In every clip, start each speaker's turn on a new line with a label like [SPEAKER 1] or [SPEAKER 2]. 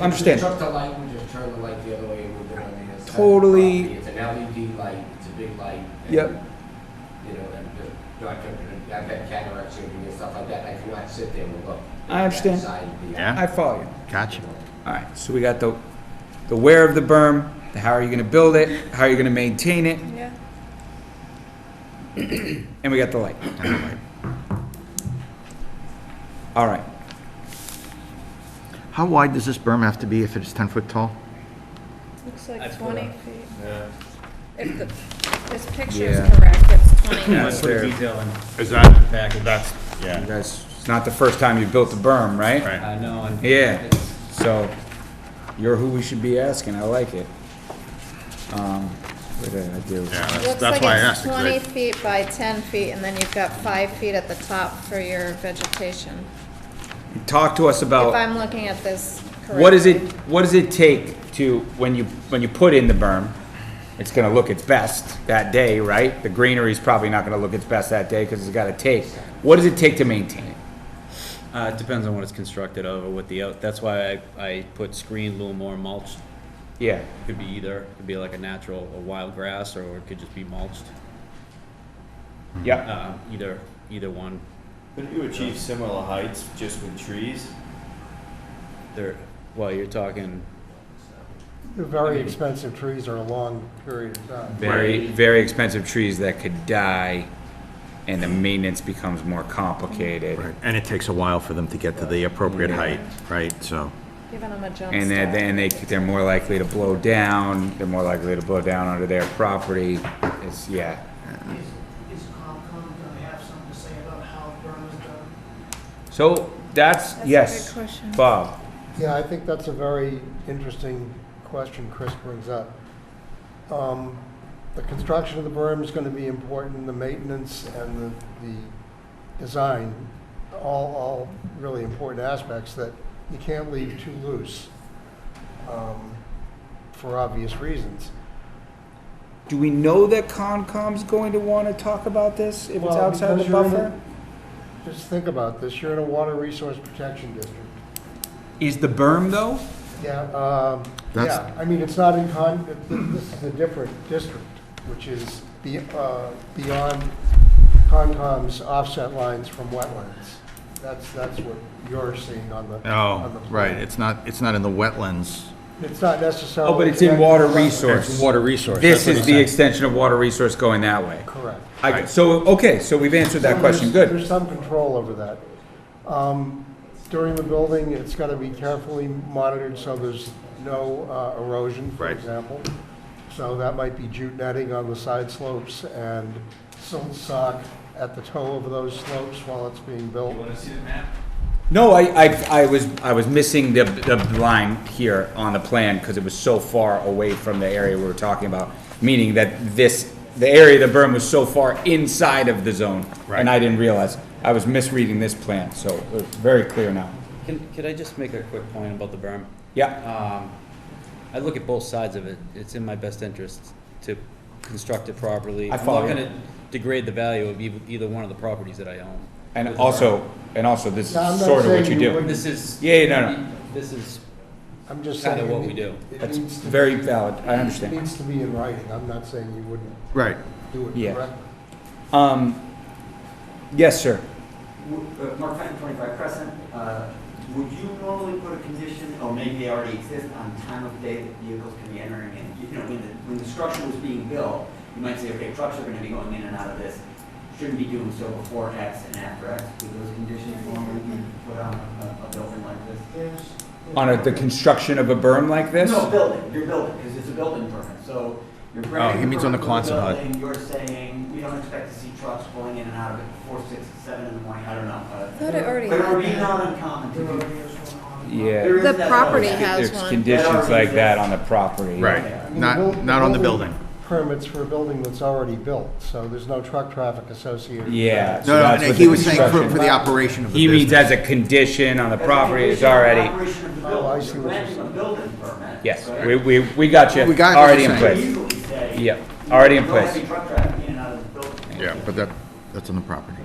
[SPEAKER 1] understand.
[SPEAKER 2] If you took the light and just turned the light the other way, it would have been on the other side. of the
[SPEAKER 1] Totally.
[SPEAKER 2] property. It's an LED light, it's a big light. and,
[SPEAKER 1] Yep.
[SPEAKER 2] You know, and the- not, gonna- I've had cataracts surgery and stuff like that, and I cannot sit there and look.
[SPEAKER 1] I understand.
[SPEAKER 2] That side of the-
[SPEAKER 3] Yeah.
[SPEAKER 1] I follow you.
[SPEAKER 3] Gotcha.
[SPEAKER 1] All right, so we got the, the where of the berm, the how are you gonna build it, how are you gonna maintain it,
[SPEAKER 4] Yeah.
[SPEAKER 1] and we got the light. All right,
[SPEAKER 3] How wide does this berm have to be if it's 10 foot tall?
[SPEAKER 4] Looks
[SPEAKER 2] I
[SPEAKER 4] like
[SPEAKER 2] put
[SPEAKER 4] twenty
[SPEAKER 2] up-
[SPEAKER 4] feet.
[SPEAKER 2] Yeah.
[SPEAKER 4] If the, this picture is
[SPEAKER 1] Yeah.
[SPEAKER 4] correct, it's twenty.
[SPEAKER 1] Yeah.
[SPEAKER 5] Let's put
[SPEAKER 1] there.
[SPEAKER 5] the detail in.
[SPEAKER 6] Is that,
[SPEAKER 5] Back.
[SPEAKER 6] that's,
[SPEAKER 1] you
[SPEAKER 6] yeah,
[SPEAKER 1] guys, it's not the first time you built the berm, right?
[SPEAKER 6] right.
[SPEAKER 4] Uh,
[SPEAKER 5] I know, and
[SPEAKER 1] Yeah, so you're who we should be asking, I like it. Um, what did I do?
[SPEAKER 6] Yeah, that's,
[SPEAKER 4] Looks
[SPEAKER 6] that's
[SPEAKER 4] like
[SPEAKER 6] why I
[SPEAKER 4] it's
[SPEAKER 6] asked. 'cause I-
[SPEAKER 4] twenty feet by ten feet, and then you've got five feet at the top for your vegetation.
[SPEAKER 1] Talk to us
[SPEAKER 4] If
[SPEAKER 1] about,
[SPEAKER 4] I'm looking at this correctly.
[SPEAKER 1] Oh. what is it, what does it take to, when you, when you put in the berm, it's gonna look its best that day, right? The greenery's probably not gonna look its best that day, cause it's gotta take, what does it take to maintain it?
[SPEAKER 5] uh, it depends on what it's constructed of or what the, out- that's why I, I put screen, loam or mulch.
[SPEAKER 1] Yeah,
[SPEAKER 5] Could be either, could be like a natural, a wild grass, or it could just be mulched.
[SPEAKER 1] yeah,
[SPEAKER 5] Uh, either, either one,
[SPEAKER 7] Couldn't you achieve similar heights just with trees?
[SPEAKER 5] they're, well, you're talking
[SPEAKER 8] The very expensive trees are a long period of time.
[SPEAKER 1] very, very expensive trees that could die, and the maintenance becomes more complicated.
[SPEAKER 3] Right, and it takes a while for them to get to the appropriate height, right, so.
[SPEAKER 4] Giving them a jump
[SPEAKER 1] And then,
[SPEAKER 4] start.
[SPEAKER 1] then they, they're more likely to blow down, they're more likely to blow down onto their property, it's, yeah.
[SPEAKER 9] Is is Concom gonna have something to say about how burn is done?
[SPEAKER 1] So, that's,
[SPEAKER 4] That's a
[SPEAKER 1] yes,
[SPEAKER 4] good question.
[SPEAKER 1] Bob,
[SPEAKER 8] Yeah, I think that's a very interesting question Chris brings up. Um, The construction of the berm is going to be important, the maintenance and the, the design, all, all really important aspects that you can't leave too loose um, for obvious reasons.
[SPEAKER 1] do we know that Concom's going to wanna talk about this if it's
[SPEAKER 8] Well,
[SPEAKER 1] outside
[SPEAKER 8] because
[SPEAKER 1] the
[SPEAKER 8] you're in
[SPEAKER 1] buffer?
[SPEAKER 8] a- Just think about this, you're in a water resource protection district.
[SPEAKER 1] Is the berm though?
[SPEAKER 8] Yeah, um,
[SPEAKER 3] That's-
[SPEAKER 8] yeah, I mean, it's not in con, th- th- this is a different district, which is be- uh, beyond Concom's offset lines from wetlands. That's, that's what you're seeing on the. on the
[SPEAKER 3] Oh,
[SPEAKER 8] plan.
[SPEAKER 3] right, it's not, it's not in the wetlands.
[SPEAKER 8] It's not necessarily.
[SPEAKER 1] Oh, but it's in water resource.
[SPEAKER 3] It's water resource.
[SPEAKER 1] This
[SPEAKER 3] that's what
[SPEAKER 1] is
[SPEAKER 3] he
[SPEAKER 1] the
[SPEAKER 3] said.
[SPEAKER 1] extension of water resource going that way.
[SPEAKER 8] Correct.
[SPEAKER 1] I, so, okay, so we've answered that
[SPEAKER 8] So
[SPEAKER 1] question,
[SPEAKER 8] there's-
[SPEAKER 1] good.
[SPEAKER 8] There's some control over that. Um, During the building, it's got to be carefully monitored so there's no uh, erosion, for
[SPEAKER 3] Right.
[SPEAKER 8] example. So that might be jute netting on the side slopes and silt sock at the toe of those slopes while it's being built.
[SPEAKER 1] No, I, I, I was, I was missing the, the line here on the plan, cause it was so far away from the area we were talking about. Meaning that this, the area of the berm was so far inside of the zone, and I didn't realize. I was misreading this plan, so it's very clear now.
[SPEAKER 5] Can, could I just make a quick point about the berm?
[SPEAKER 1] Yeah,
[SPEAKER 5] Um, I look at both sides of it. It's in my best interest to construct it properly.
[SPEAKER 1] I follow you.
[SPEAKER 5] I'm not gonna degrade the value of eith- either one of the properties that I own.
[SPEAKER 1] and
[SPEAKER 5] with the berm.
[SPEAKER 1] also, and also, this
[SPEAKER 8] No, I'm
[SPEAKER 1] is
[SPEAKER 8] not
[SPEAKER 1] sort of what
[SPEAKER 8] saying
[SPEAKER 1] you
[SPEAKER 8] you
[SPEAKER 1] do.
[SPEAKER 8] wouldn't-
[SPEAKER 5] This is.
[SPEAKER 1] Yeah, yeah, no, no.
[SPEAKER 5] This is,
[SPEAKER 8] I'm just saying.
[SPEAKER 5] Kinda what
[SPEAKER 8] it
[SPEAKER 5] we do.
[SPEAKER 8] it
[SPEAKER 1] That's
[SPEAKER 8] needs to-
[SPEAKER 1] very valid, I
[SPEAKER 8] It
[SPEAKER 1] understand.
[SPEAKER 8] needs to be in writing. I'm not saying you wouldn't
[SPEAKER 3] Right,
[SPEAKER 8] do
[SPEAKER 1] Yeah.
[SPEAKER 8] it correctly.
[SPEAKER 1] Um, yes, sir.
[SPEAKER 10] Uh, Mark Fenton, 25 Crescent. Uh, Would you normally put a condition, or maybe they already exist, on time of day that vehicles can be entering in? You know, when the, when the structure was being built, you might say, okay, trucks are going to be going in and out of this. Shouldn't be doing so before X and after X. Would those conditions normally be put on a, a building like this?
[SPEAKER 9] There's.
[SPEAKER 1] On a, the construction of a berm like this?
[SPEAKER 10] No, building, your building, because it's a building permit, so you're
[SPEAKER 3] Oh,
[SPEAKER 10] granting.
[SPEAKER 3] he means on the
[SPEAKER 10] permit for
[SPEAKER 3] Quonset hut.
[SPEAKER 10] building, You're saying, we don't expect to see trucks going in and out of it before six, seven in the morning, I don't know. uh,
[SPEAKER 4] I thought it already
[SPEAKER 10] But it would be
[SPEAKER 4] had
[SPEAKER 10] not uncommon
[SPEAKER 9] There
[SPEAKER 10] to do.
[SPEAKER 9] already is one on.
[SPEAKER 1] Yeah.
[SPEAKER 10] There is
[SPEAKER 4] The
[SPEAKER 10] that
[SPEAKER 4] property
[SPEAKER 10] building.
[SPEAKER 4] has
[SPEAKER 1] There's
[SPEAKER 4] one.
[SPEAKER 1] conditions like that on the property.
[SPEAKER 10] I
[SPEAKER 3] right,
[SPEAKER 8] mean, the
[SPEAKER 3] not,
[SPEAKER 8] buil-
[SPEAKER 3] not on the building.
[SPEAKER 8] Permits for a building that's already built, so there's no truck traffic associated. with
[SPEAKER 1] Yeah.
[SPEAKER 8] that.
[SPEAKER 1] So
[SPEAKER 3] No,
[SPEAKER 1] that's
[SPEAKER 3] no,
[SPEAKER 1] what
[SPEAKER 3] he
[SPEAKER 1] the
[SPEAKER 3] was saying for,
[SPEAKER 1] construction-
[SPEAKER 3] for the operation of the
[SPEAKER 1] He
[SPEAKER 3] business.
[SPEAKER 1] means as a condition on the
[SPEAKER 10] As a
[SPEAKER 1] property is
[SPEAKER 10] condition of
[SPEAKER 1] already,
[SPEAKER 10] operation of the
[SPEAKER 8] Oh, I
[SPEAKER 10] building.
[SPEAKER 8] see
[SPEAKER 10] You're
[SPEAKER 8] what you're
[SPEAKER 10] granting a building permit,
[SPEAKER 1] yes,
[SPEAKER 10] but
[SPEAKER 1] we, we, we got you,
[SPEAKER 3] We got what
[SPEAKER 1] already in
[SPEAKER 3] you're
[SPEAKER 10] You could
[SPEAKER 1] place.
[SPEAKER 3] saying.
[SPEAKER 10] easily say.
[SPEAKER 1] Yep, already in
[SPEAKER 10] "No heavy
[SPEAKER 1] place.
[SPEAKER 10] truck traffic in and out of the building.
[SPEAKER 3] Yeah, but that, that's on the property.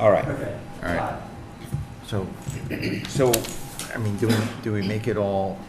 [SPEAKER 1] All right,
[SPEAKER 10] Okay.
[SPEAKER 3] All right.
[SPEAKER 10] Got it.
[SPEAKER 3] So,
[SPEAKER 1] so
[SPEAKER 3] I mean, do we, do we make it all